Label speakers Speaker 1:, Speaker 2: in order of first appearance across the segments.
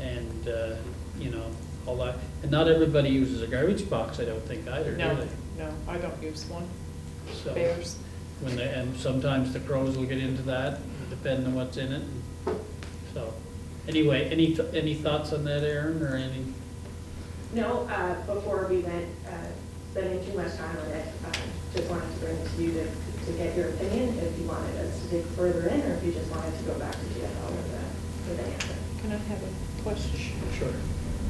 Speaker 1: and, uh, you know, all that. And not everybody uses a garbage box, I don't think either, do
Speaker 2: No,
Speaker 1: they?
Speaker 2: no, I don't use one,
Speaker 1: So,
Speaker 2: bears.
Speaker 1: When they, and sometimes the crows will get into that, depending on what's in it. So, anyway, any, th- any thoughts on that, Aaron, or any?
Speaker 3: No, uh, before we went, uh, spending too much time on it, uh, just wanted to bring it to you to, to get your opinion, if you wanted us to dig further in, or if you just wanted to go back to GFL with the, with the answer.
Speaker 2: Can I have a question?
Speaker 1: Sure.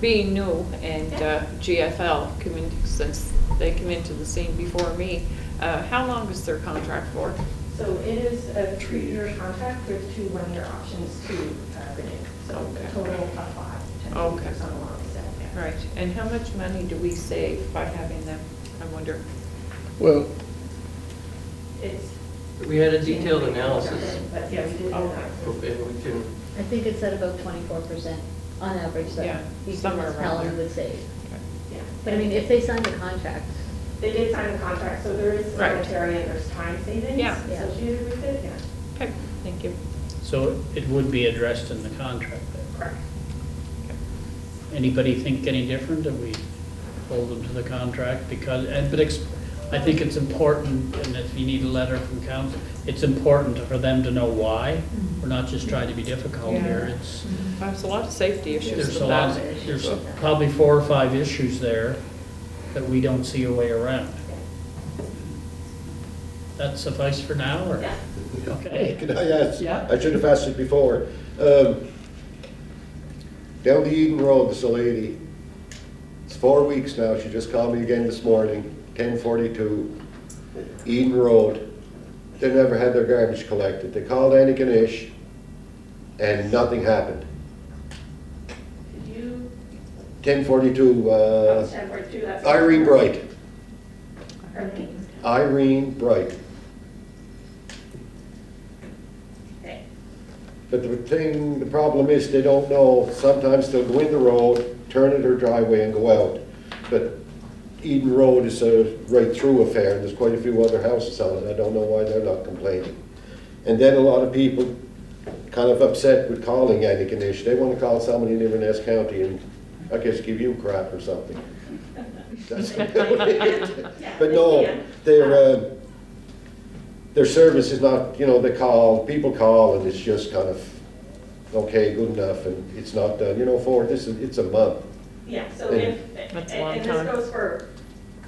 Speaker 2: Being new and uh, GFL, come in- since they come into the scene before me, uh, how long is their contract for?
Speaker 3: So it is a three-year contract with two one-year options to uh, renew, so
Speaker 2: Okay.
Speaker 3: a total of five,
Speaker 2: Okay.
Speaker 3: technically, on the long side.
Speaker 2: Right, and how much money do we save by having them, I wonder?
Speaker 4: Well,
Speaker 3: It's.
Speaker 5: We had a detailed analysis,
Speaker 3: But yeah, we did.
Speaker 2: Okay.
Speaker 3: analysis.
Speaker 5: and we can,
Speaker 6: I think it's at about twenty-four percent on average,
Speaker 2: Yeah,
Speaker 6: that each
Speaker 2: somewhere around
Speaker 6: municipality
Speaker 2: there.
Speaker 6: would save.
Speaker 3: Yeah.
Speaker 6: But I mean, if they signed the contract,
Speaker 3: They did sign the contract, so there is
Speaker 2: Right.
Speaker 3: monetary and there's time savings
Speaker 2: Yeah.
Speaker 3: associated with it, yeah.
Speaker 2: Okay, thank you.
Speaker 1: So it would be addressed in the contract then.
Speaker 3: Correct.
Speaker 1: Anybody think any different? Do we hold them to the contract because, and, but it's, I think it's important, and if you need a letter from council, it's important for them to know why.
Speaker 3: Mm-hmm.
Speaker 1: We're not just trying to be difficult here.
Speaker 2: Yeah.
Speaker 1: It's,
Speaker 2: There's a lot of safety issues
Speaker 1: there's
Speaker 2: with
Speaker 1: a lot,
Speaker 2: that.
Speaker 1: there's probably four or five issues there that we don't see a way around. That suffice for now, or?
Speaker 3: Yeah.
Speaker 1: Okay.
Speaker 7: Can I ask?
Speaker 1: Yeah.
Speaker 7: I should have asked it before. Um, Down the Eden Road, this lady, it's four weeks now, she just called me again this morning, ten forty-two, Eden Road. They never had their garbage collected. They called Annie Ganesh, and nothing happened.
Speaker 3: Could you,
Speaker 7: Ten forty-two,
Speaker 3: oh,
Speaker 7: uh,
Speaker 3: it's 10:42, that's-
Speaker 7: Irene Bright,
Speaker 3: Irene,
Speaker 7: Irene Bright.
Speaker 3: okay.
Speaker 7: But the thing, the problem is, they don't know, sometimes they'll go in the road, turn at her driveway and go out. But Eden Road is uh, a right-through affair, and there's quite a few other houses on it, I don't know why they're not complaining. And then a lot of people kind of upset with calling Annie Kanish, they wanna call somebody in Inverness County and, I guess, give you crap or something. That's about it.
Speaker 3: Yeah,
Speaker 7: But
Speaker 3: they
Speaker 7: no,
Speaker 3: can.
Speaker 7: their, uh, their service is not, you know, they call, people call and it's just kind of, okay, good enough, and it's not done, you know, for, this is, it's a month.
Speaker 3: Yeah, so
Speaker 7: And-
Speaker 3: if, and
Speaker 2: That's a long
Speaker 3: and
Speaker 2: time.
Speaker 3: this goes for,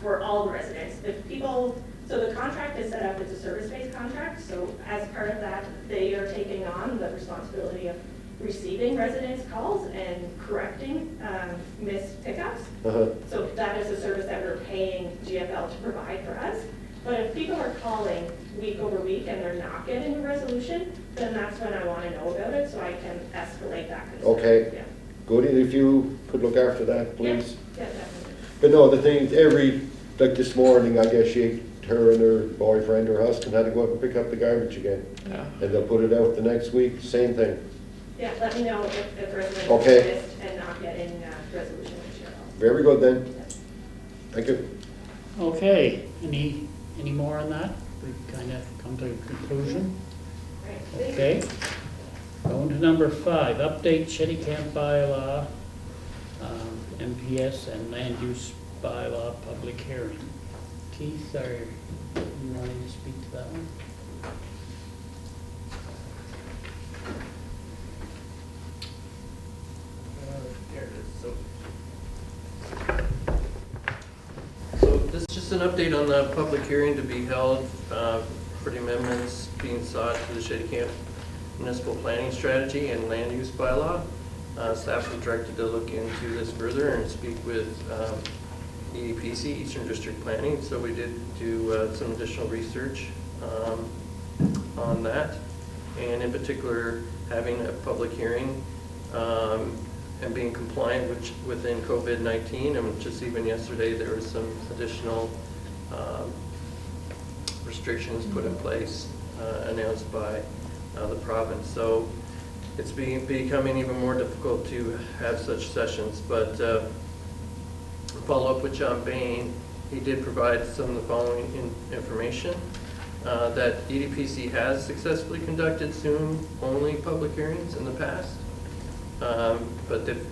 Speaker 3: for all the residents, if people, so the contract is set up, it's a service-based contract, so as part of that, they are taking on the responsibility of receiving residents' calls and correcting um, missed pickups.
Speaker 7: Uh-huh.
Speaker 3: So that is a service that we're paying GFL to provide for us. But if people are calling week over week and they're not getting a resolution, then that's when I want to know about it, so I can escalate that concern.
Speaker 7: Okay.
Speaker 3: Yeah.
Speaker 7: Good, and if you could look after that, please.
Speaker 3: Yeah, yeah, definitely.
Speaker 7: But no, the thing, every, like this morning, I guess she, her and her boyfriend or husband had to go up and pick up the garbage again.
Speaker 2: Yeah.
Speaker 7: And they'll put it out the next week, same thing.
Speaker 3: Yeah, let me know if, if residents
Speaker 7: Okay.
Speaker 3: exist and not getting uh resolution with Cheryl.
Speaker 7: Very good then, thank you.
Speaker 1: Okay, any, any more on that? We've kind of come to a conclusion.
Speaker 3: Right.
Speaker 1: Okay. Going to number five, update Shetty Camp bylaw, um, MPS and land use bylaw public hearing. Keith, are you wanting to speak to that one?
Speaker 5: There it is, so. So this is just an update on the public hearing to be held uh, for the amendments being sought to the Shady Camp Municipal Planning Strategy and Land Use Bylaw. Uh, Staff was directed to look into this further and speak with um, EDPC, Eastern District Planning, so we did do uh, some additional research um, on that. And in particular, having a public hearing um, and being compliant which, within COVID-19. And just even yesterday, there was some additional um, restrictions put in place, uh, announced by uh, the province. So it's being, becoming even more difficult to have such sessions, but uh, follow up with John Bain, he did provide some of the following in- information, uh, that EDPC has successfully conducted Zoom-only public hearings in the past, um, but they've